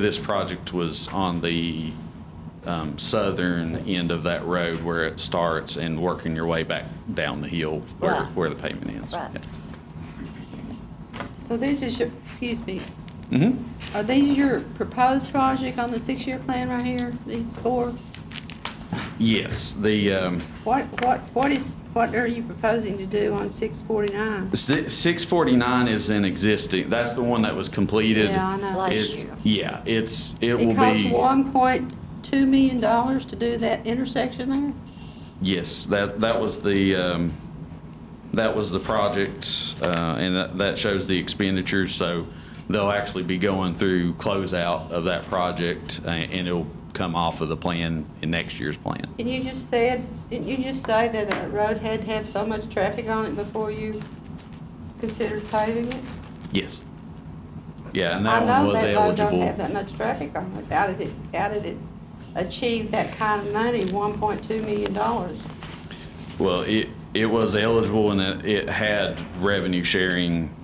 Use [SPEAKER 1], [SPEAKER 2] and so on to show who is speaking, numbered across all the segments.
[SPEAKER 1] This project was on the um, southern end of that road where it starts and working your way back down the hill where,
[SPEAKER 2] Right.
[SPEAKER 1] where the pavement ends.
[SPEAKER 2] Right.
[SPEAKER 3] So this is your, excuse me,
[SPEAKER 1] Mm-hmm.
[SPEAKER 3] are these your proposed project on the six-year plan right here, these four?
[SPEAKER 1] Yes, the um,
[SPEAKER 3] What, what, what is, what are you proposing to do on six forty-nine?
[SPEAKER 1] si- 649 is an existing, that's the one that was completed.
[SPEAKER 3] Yeah, I know.
[SPEAKER 2] Last
[SPEAKER 1] It's-
[SPEAKER 2] year.
[SPEAKER 1] Yeah, it's, it will
[SPEAKER 3] It costs
[SPEAKER 1] be,
[SPEAKER 3] one point two million dollars to do that intersection there?
[SPEAKER 1] yes, that, that was the, um, that was the project, uh, and that, that shows the expenditures. So they'll actually be going through closeout of that project, a- and it'll come off of the plan in next year's plan.
[SPEAKER 3] And you just said, didn't you just say that a road had to have so much traffic on it before you considered paving it?
[SPEAKER 1] Yes. Yeah, and that one was
[SPEAKER 3] I know that road don't have
[SPEAKER 1] eligible.
[SPEAKER 3] that much traffic on it. How did it, how did it achieve that kind of money, one point two million dollars?
[SPEAKER 1] Well, it, it was eligible and it, it had revenue sharing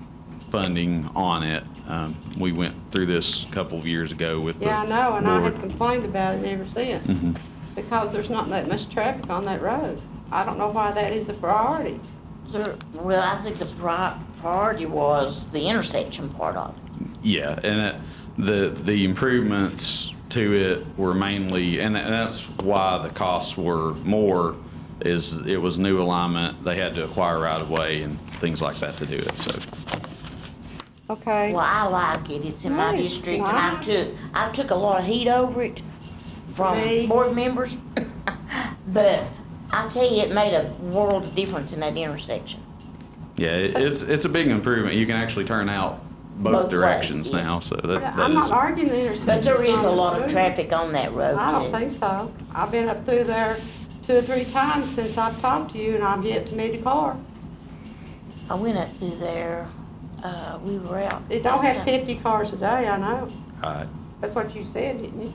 [SPEAKER 1] funding on it. Um, we went through this a couple of years ago with the
[SPEAKER 3] Yeah, I know, and I have
[SPEAKER 1] board.
[SPEAKER 3] complained about it ever since,
[SPEAKER 1] Mhm.
[SPEAKER 3] because there's not that much traffic on that road. I don't know why that is a priority.
[SPEAKER 2] There, well, I think the pri- priority was the intersection part of it.
[SPEAKER 1] Yeah, and it, the, the improvements to it were mainly, and tha- and that's why the costs were more, is it was new alignment, they had to acquire right of way and things like that to do it, so.
[SPEAKER 3] Okay.
[SPEAKER 2] Well, I like it, it's in my
[SPEAKER 3] Right.
[SPEAKER 2] district, and I
[SPEAKER 3] Why?
[SPEAKER 2] took, I took a lot of heat over it
[SPEAKER 3] Me.
[SPEAKER 2] from board members. But I tell you, it made a world of difference in that intersection.
[SPEAKER 1] Yeah, it- it's, it's a big improvement. You can actually turn out
[SPEAKER 2] Both
[SPEAKER 1] both
[SPEAKER 2] ways,
[SPEAKER 1] directions
[SPEAKER 2] yes.
[SPEAKER 1] now, so that, that
[SPEAKER 3] I'm not
[SPEAKER 1] is.
[SPEAKER 3] arguing the intersection.
[SPEAKER 2] But there is a lot of traffic on that road, too.
[SPEAKER 3] I don't think so. I've been up through there two or three times since I've talked to you, and I've yet to meet a car.
[SPEAKER 2] I went up through there, uh, we were out.
[SPEAKER 3] It don't have fifty cars a day, I know.
[SPEAKER 1] Uh,
[SPEAKER 3] That's what you said, didn't you?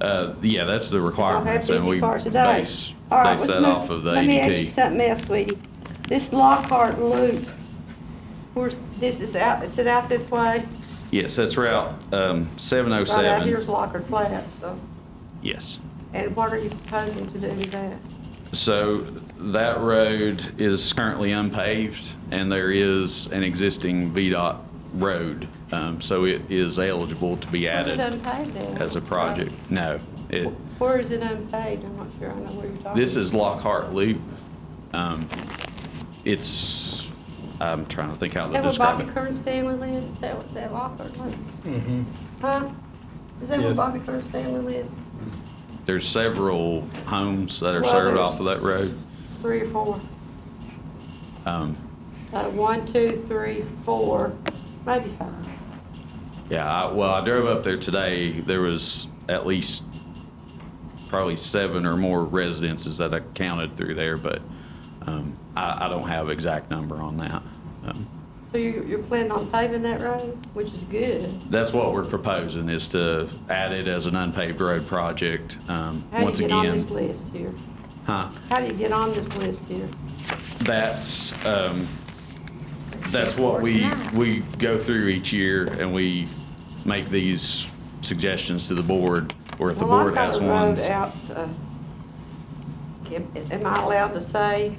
[SPEAKER 1] uh, yeah, that's the
[SPEAKER 3] Don't have
[SPEAKER 1] requirements and
[SPEAKER 3] fifty
[SPEAKER 1] we
[SPEAKER 3] cars a day.
[SPEAKER 1] base,
[SPEAKER 3] All right,
[SPEAKER 1] base
[SPEAKER 3] let's
[SPEAKER 1] that
[SPEAKER 3] move-
[SPEAKER 1] off of the
[SPEAKER 3] Let me ask you
[SPEAKER 1] ADT.
[SPEAKER 3] something else, sweetie. This Lockhart Loop, where's, this is out, is it out this way?
[SPEAKER 1] Yes, that's Route, um, seven oh
[SPEAKER 3] Right out here's
[SPEAKER 1] seven.
[SPEAKER 3] Lockhart Flat, so,
[SPEAKER 1] Yes.
[SPEAKER 3] and what are you proposing to do with that?
[SPEAKER 1] So that road is currently unpaved and there is an existing VDOT road. Um, so it is eligible to be
[SPEAKER 3] Where's it
[SPEAKER 1] added
[SPEAKER 3] unpaved then?
[SPEAKER 1] as a project. No, it,
[SPEAKER 3] Where is it unpaved? I'm not sure, I know where you're talking.
[SPEAKER 1] This is Lockhart Loop. Um, It's, I'm trying to think how to
[SPEAKER 3] That where
[SPEAKER 1] describe
[SPEAKER 3] Bobby
[SPEAKER 1] it.
[SPEAKER 3] Kern Stanley lived, is that, what's that Lockhart Loop? Mm-hmm. Huh? Is that where
[SPEAKER 4] Yes.
[SPEAKER 3] Bobby Kern Stanley lived?
[SPEAKER 1] There's several homes that are
[SPEAKER 3] Well,
[SPEAKER 1] served
[SPEAKER 3] there's-
[SPEAKER 1] off of that road.
[SPEAKER 3] Three or four?
[SPEAKER 1] Um,
[SPEAKER 3] Uh, one, two, three, four, maybe five.
[SPEAKER 1] Yeah, I- well, I drove up there today. There was at least probably seven or more residences that I counted through there, but um, I I don't have exact number on that. Um,
[SPEAKER 3] So you, you're planning on paving that road, which is good.
[SPEAKER 1] That's what we're proposing, is to add it as an unpaved road project. Um,
[SPEAKER 3] How
[SPEAKER 1] Once
[SPEAKER 3] do you get on
[SPEAKER 1] again,
[SPEAKER 3] this list here?
[SPEAKER 1] huh?
[SPEAKER 3] How do you get on this list here?
[SPEAKER 1] That's, um, that's what we, we go through each year and we make these suggestions to the board, or if the
[SPEAKER 3] Well,
[SPEAKER 1] board
[SPEAKER 3] I've got
[SPEAKER 1] has
[SPEAKER 3] a road
[SPEAKER 1] ones.
[SPEAKER 3] out, uh, am am I allowed to say,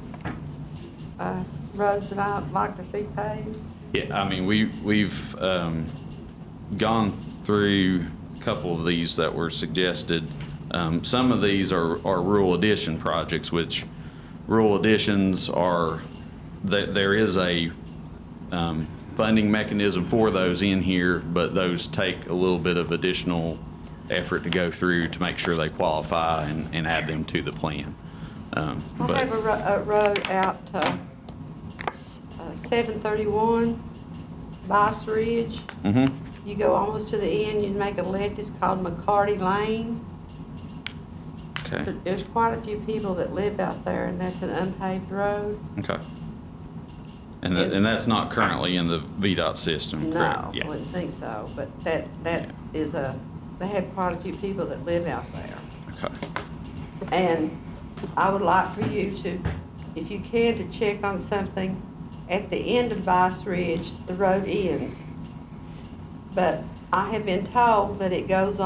[SPEAKER 3] uh, roads that I'd like to see paved?
[SPEAKER 1] Yeah, I mean, we, we've, um, gone through a couple of these that were suggested. Um, some of these are, are rural addition projects, which rural additions are, that there is a, um, funding mechanism for those in here, but those take a little bit of additional effort to go through to make sure they qualify and, and add them to the plan. Um,
[SPEAKER 3] I
[SPEAKER 1] but-
[SPEAKER 3] have a ro- a road out, uh, seven thirty-one, Bice Ridge.
[SPEAKER 1] Mhm.
[SPEAKER 3] You go almost to the end, you make a left, it's called McCarty Lane.
[SPEAKER 1] okay,
[SPEAKER 3] But There's quite a few people that live out there, and that's an unpaved road.
[SPEAKER 1] okay. And that, and that's not currently in the VDOT system,
[SPEAKER 3] No,
[SPEAKER 1] correct?
[SPEAKER 3] I
[SPEAKER 1] Yeah.
[SPEAKER 3] wouldn't think so, but that, that
[SPEAKER 1] Yeah.
[SPEAKER 3] is a, they have quite a few people that live out there.
[SPEAKER 1] Okay.
[SPEAKER 3] And I would like for you to, if you can, to check on something. At the end of Vice Ridge, the road ends. But I have been told that it goes on.